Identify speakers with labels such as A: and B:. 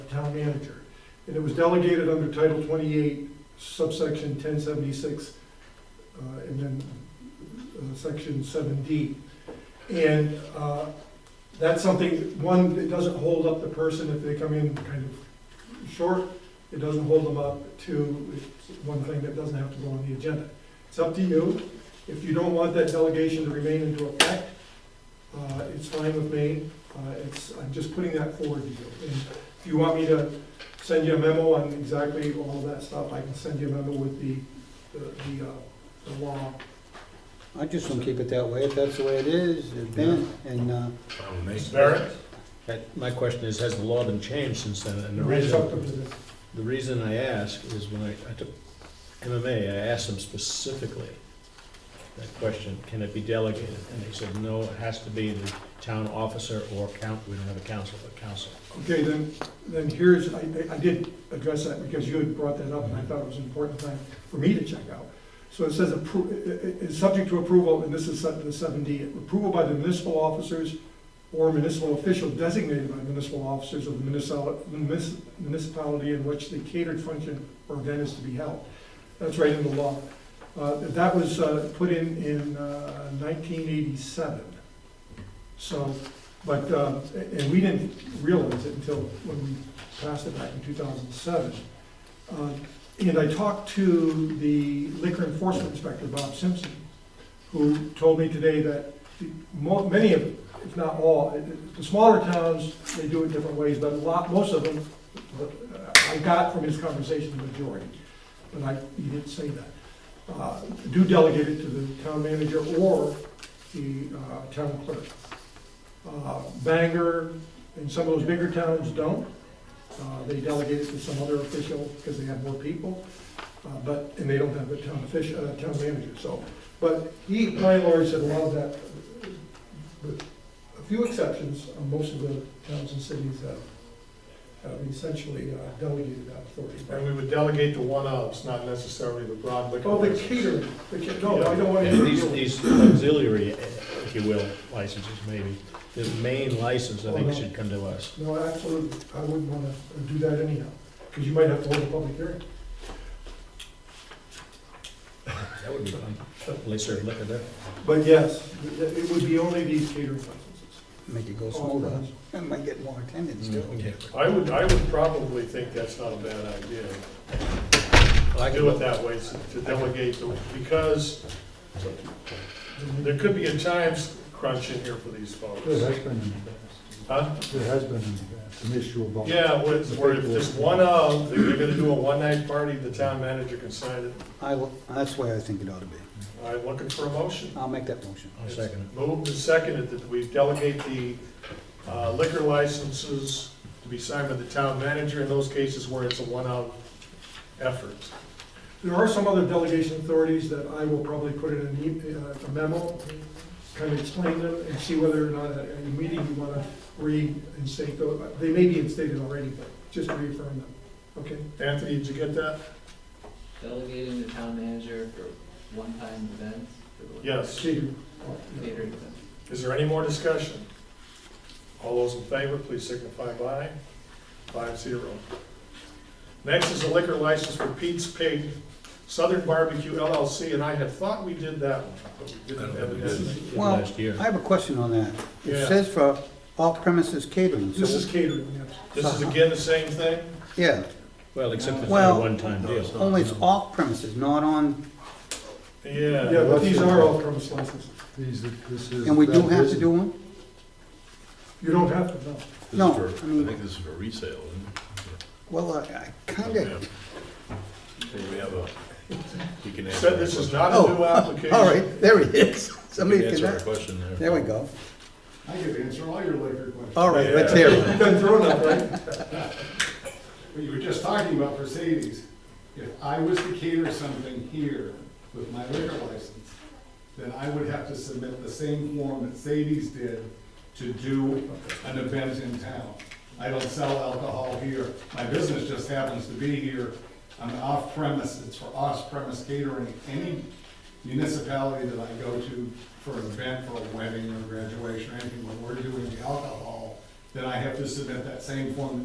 A: town manager. And it was delegated under Title 28, subsection 1076, uh, and then uh, section 7D. And uh, that's something, one, it doesn't hold up the person if they come in kind of short. It doesn't hold them up. Two, it's one thing that doesn't have to go on the agenda. It's up to you. If you don't want that delegation to remain into effect, uh, it's fine with me. Uh, It's, I'm just putting that forward to you. And if you want me to send you a memo on exactly all of that stuff, I can send you a memo with the, the- the, uh, the law.
B: I just want to keep it that way, if that's the way it is, it's been, and, uh,
C: Barrett?
D: That- My question is, has the law been changed since then? And the
A: It's up to
D: reason,
A: the-
D: the reason I ask is when I, I took MMA, I asked them specifically that question, can it be delegated? And they said, no, it has to be the town officer or count, we don't have a council, but council.
A: Okay, then, then here's, I, I- I did address that because you had brought that up and I thought it was an important thing for me to check out. So it says appro, i- i- is subject to approval, and this is set to the seven D, approval by the municipal officers or municipal official designated by municipal officers of the municipal- munis- municipality in which the catered function or event is to be held. That's right in the law. Uh, that was, uh, put in, in uh, nineteen eighty-seven. So, but, uh, and we didn't realize it until when we passed it back in 2007. Uh, And I talked to the liquor enforcement inspector, Bob Simpson, who told me today that the mo- many of, if not all, it- it- the smaller towns, they do it different ways, but a lot, most of them, uh, I got from his conversation, the majority, but I, he didn't say that, uh, do delegate it to the town manager or the uh, town clerk. Uh, Bangor, and some of those bigger towns don't. Uh, They delegate it to some other official because they have more people, uh, but, and they don't have a town official, uh, town manager, so. But he, my lawyer said a lot of that, with a few exceptions, uh, most of the towns and cities have, have essentially uh, delegated that authority.
C: And we would delegate to one of, it's not necessarily the broad liquor.
A: Oh, the
C: license.
A: catering, the ca- no, I don't want
D: And these,
A: to.
D: these auxiliary, if you will, licenses maybe, the main license, I think, should come to us.
A: No, absolutely, I wouldn't want to do that anyhow, because you might have to hold a public hearing.
D: That would be fun. At least they're liquor there.
A: But yes, it it would be only these catering licenses.
B: make it go smoother, Mm, I might get more attendance too.
D: Yeah.
C: I would, I would probably think that's not a bad idea.
D: Well, I can-
C: Do it that way, so- to delegate, to- because there could be a time crunch in here for these
E: There
C: folks.
E: has been in the
C: Huh?
E: past, there has been in the past, an issue about.
C: Yeah, where it's- where if there's one of, that you're gonna do a one-night party, the town manager can sign it.
B: I, will- that's the way I think it ought to be.
C: I'm looking for a motion.
B: I'll make that motion.
D: I'll second
C: Moved and seconded that we delegate the uh, liquor licenses to be signed by the town manager in those cases where it's a one-out effort.
A: There are some other delegation authorities that I will probably put in an e- uh, a memo, kind of explain them and see whether or not at any meeting you want to reinstate those. They may be instated already, but just reaffirm them, okay?
C: Anthony, did you get that?
F: Delegating the town manager for one-time events? for the-
C: Yes.
A: Catering.
F: Catering events.
C: Is there any more discussion? All those in favor, please signify by five zero. Next is a liquor license for Pete's Pig, Southern Barbecue LLC, and I had thought we did that one, but we
D: I
C: didn't
D: don't think we
C: evidently.
D: did
B: Well,
D: last year.
B: I have a question on that. It
C: Yeah.
B: says for all premises catering,
A: This is
B: so,
A: catering, yes.
C: This is again the same thing?
B: yeah,
D: Well, except it's not a
B: Well-
D: one-time deal.
B: only it's off premises, not on,
A: Yeah,
C: Yeah.
A: but these are all premise licenses.
E: These, are- this is.
B: and we do
E: that
B: have to
E: is-
B: do one?
A: You don't have to, no.
G: This is
B: No,
G: for-
B: I mean-
G: I think this is for resale,
B: Well, I- I
G: isn't
B: kinda,
G: it? Yeah. We have a, you can answer.
C: Said this
G: our
C: is
G: question.
C: not a new application.
B: Oh, all right, there it is.
G: You
B: Somebody
G: can
B: can,
G: answer our
B: there
G: question there.
B: we go.
E: I could answer all your liquor questions.
B: All right, let's hear it.
A: You've been thrown up, right?
E: What you were just talking about for Sadie's, if I was to cater something here with my liquor license, then I would have to submit the same form that Sadie's did to do an event in town. I don't sell alcohol here, my business just happens to be here, I'm off premise, it's for off-premise catering. Any municipality that I go to for an event, for a wedding or graduation or anything, when we're doing the alcohol, then I have to submit that same form